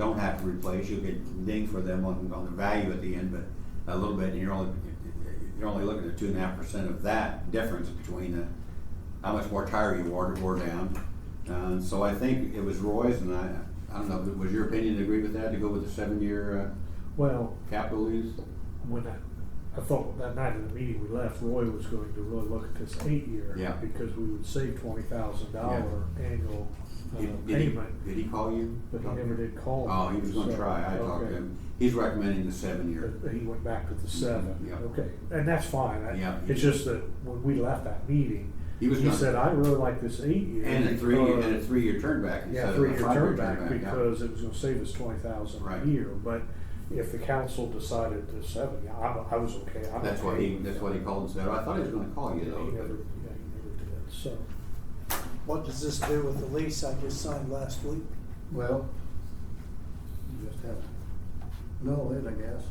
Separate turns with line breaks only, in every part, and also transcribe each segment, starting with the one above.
don't have to replace, you could ding for them on, on the value at the end, but a little bit, and you're only, you're only looking at two and a half percent of that difference between the, how much more tire you wore, wore down. Uh, so I think it was Roy's, and I, I don't know, was your opinion to agree with that, to go with the seven-year,
Well,
uh, capital lease?
when I, I thought that night in the meeting we left, Roy was going to really look at this eight year.
Yeah.
Because we would save twenty thousand dollar annual uh,
Did- did he-
payment,
Did he call you?
but he never did call.
Oh, he was gonna
so-
try, I talked
okay.
to him, he's recommending the seven-year.
But he went back to the seven.
Yeah.
Okay, and that's fine. I-
Yeah.
It's just that when we left that meeting,
He was
he
gonna-
said, I really like this eight year.
And a three,
because-
and a three-year turn back instead
Yeah,
of a
three-year
five-year
turn back
yeah.
because it was gonna save us twenty thousand
Right.
a year, but if the council decided to seven, yeah, I, I was okay, I'm okay.
That's what he, that's what he called and said, "Oh, I thought he was gonna call
He
you
never, yeah, he
though.
never did, so.
What does this do with the lease I just signed last week?
Well, you just have to know it, I guess.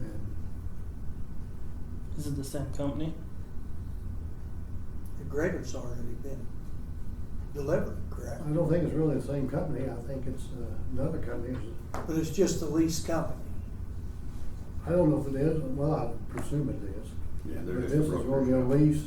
And
Is it the same company?
The grader's already been delivered, correct?
I don't think it's really the same company, I think it's uh, another company. It's-
But it's just the lease company.
I don't know if it is, well, I presume it is.
Yeah, they're
uh, But
just
this is gonna be a
brokers.
lease,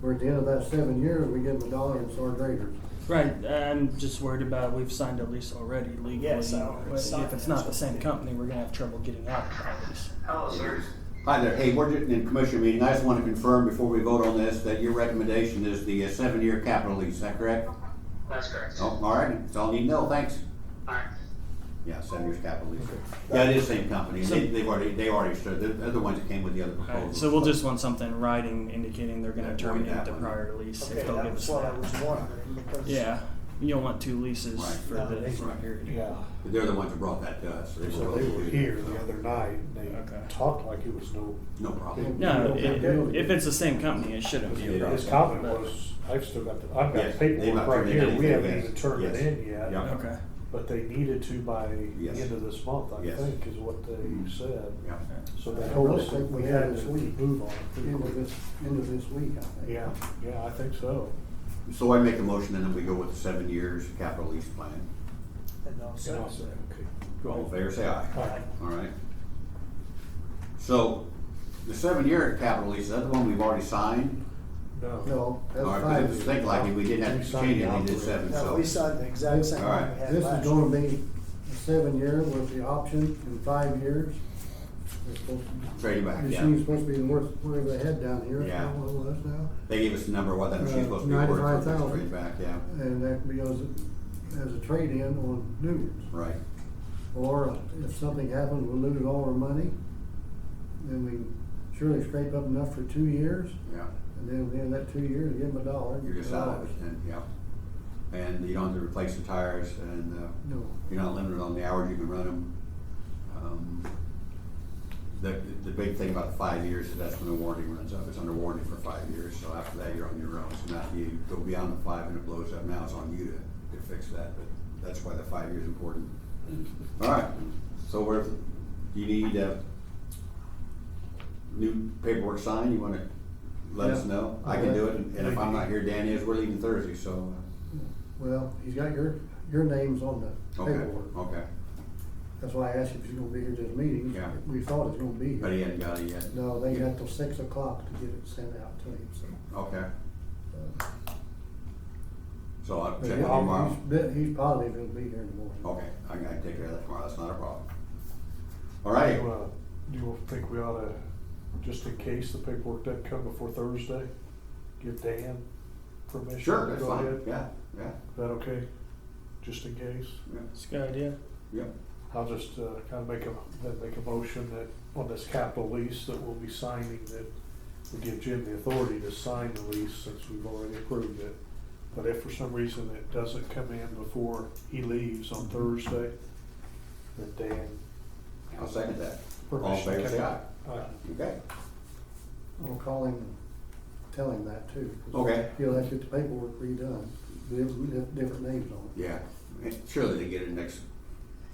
where at the end of that seven years, we give them a dollar and it's our graders.
Right, I'm just worried about we've signed a lease already legally.
Yes, I already
But
signed
If it's
it.
not the same company, we're gonna have trouble getting out of that lease.
Hello, Oh, sir.
Hi there, hey, we're just in commissioner meeting, I just wanna confirm before we vote on this, that your recommendation is the uh, seven-year capital lease, is that correct?
That's correct.
Oh, all right, that's all I need to know, thanks.
All right.
Yeah, seven years capital lease, yeah, it is same company,
So-
they, they've already, they already started, they're, they're the ones that came with the other proposal.
Alright, so we'll just want something in writing indicating they're
Yeah,
gonna
void
terminate
that
the
one.
prior lease
Okay,
if they'll give
that's
us
what I
that.
was wondering because.
Yeah, you don't want two leases
Right.
for
No,
the
they-
same period.
They're the ones that brought that to us.
So they were
both-
here the other night, and
Okay.
they talked like it was no,
No problem.
You
No, it,
don't-
if it's the same company, it shouldn't be a problem.
his comment was, I've still got, the I've got
Yes, they've not
paperwork right
turned in
here, we
anything
haven't
yet.
even turned it
Yes.
in yet.
Yeah.
Okay.
But they needed to by the
Yes.
end of this month, I
Yes.
think, is what
Mm-hmm.
they said.
Yeah.
So
I
they
really
told us
think
that we
we
had
had
to
this week.
move on it pretty
End
quick.
of this, end of this week, I think.
Yeah, yeah, I think so.
So I make a motion and then we go with the seven years capital lease plan.
And I'll say-
And I'll say, okay.
All in favor, say aye.
All right.
All right. So the seven-year capital lease, that's the one we've already signed?
No.
No,
All
that's
right,
five.
'cause I was thinking like we didn't have to change it, we did seven,
No, we
so.
signed the exact same
All
one
right.
we had
This
last
is
year.
gonna be a seven year with the option in five years. They're supposed to-
Trade it back,
Machine's
yeah.
supposed to be worth whatever they had down here, I
Yeah.
don't know what it was now.
They gave us the number of what that machine's
Uh,
supposed to be worth, so
95,000.
trade it back, yeah,
And that could be as, as a trade-in on new ones.
right.
Or uh, if something happens, we lose all our money, then we surely scrape up enough for two years.
Yeah,
And then at the end of that two years, give them a dollar.
you're just out of it then, yeah. And you don't have to replace the tires and, uh,
No.
You're not limited on the hours you can run them. Um, The, the big thing about the five years is that's when the warranty runs up. It's under warranty for five years, so after that, you're on your own. So now if you go beyond the five and it blows up, now it's on you to, to fix that, but that's why the five years is important. All right, so we're, you need, uh, new paperwork signed, you wanna let us
Yeah.
know? I can do it, and if I'm not here, Dan is, we're leaving Thursday, so.
Well, he's got your, your names on
uh,
the
Okay,
paperwork.
okay,
That's why I asked if he's gonna be here to the meeting.
Yeah.
We thought he was gonna be here.
but he hadn't got it yet.
No, they got till six o'clock to get it sent out to him, so.
Okay.
uh,
So I'll
but
check with
he-
you tomorrow.
he's- He's positive he'll be here in the morning.
Okay, I gotta take care of that tomorrow, that's not a problem. All
Do
right,
you, uh, do you think we ought to, just in case the paperwork doesn't come before Thursday, give Dan permission?
sure,
to
that's
go
fine,
ahead?
yeah, yeah,
Is that okay? Just in case?
yeah,
It's a good idea.
yeah.
I'll just uh, kind of make a, then make a motion that on this capital lease that we'll be signing, that we give Jim the authority to sign the lease since we've already approved it. But if for some reason it doesn't come in before he leaves on Thursday, then Dan.
I'll second that. All in
permission
favor,
to
say
come
aye.
in. Aye.
Okay,
I'll call him and tell him that too. 'cause
Okay.
He'll have to get the paperwork redone, with different names on it.
yeah, surely they get it next,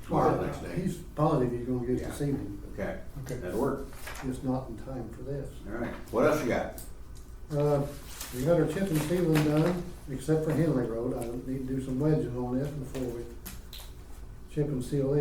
tomorrow, next day.
He's positive he's gonna get it this
Yeah.
evening, but
Okay,
Okay.
that'll work,
just not in time for this.
all right. What else you got?
Uh, we got our chip and sealing done, except for Henley Road, I need to do some wedging on it before we chip and seal